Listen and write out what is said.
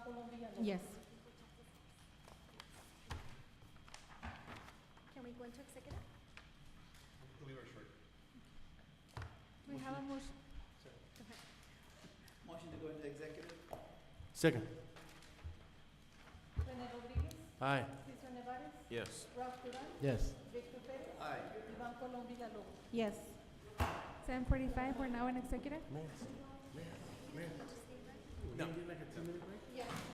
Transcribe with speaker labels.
Speaker 1: Yes.
Speaker 2: Can we go into executive?
Speaker 3: Leave her short.
Speaker 2: Do we have a motion?
Speaker 4: Motion to go into executive?
Speaker 5: Second.
Speaker 1: René Rodríguez,
Speaker 5: Aye.
Speaker 1: Cesar Nevares,
Speaker 3: Yes.
Speaker 1: Ralph Durán,
Speaker 5: Yes.
Speaker 1: Victor Pérez,
Speaker 4: Aye.
Speaker 1: Iván Colón Villalobos.
Speaker 2: Yes. Seven forty-five, we're now in executive?
Speaker 5: No.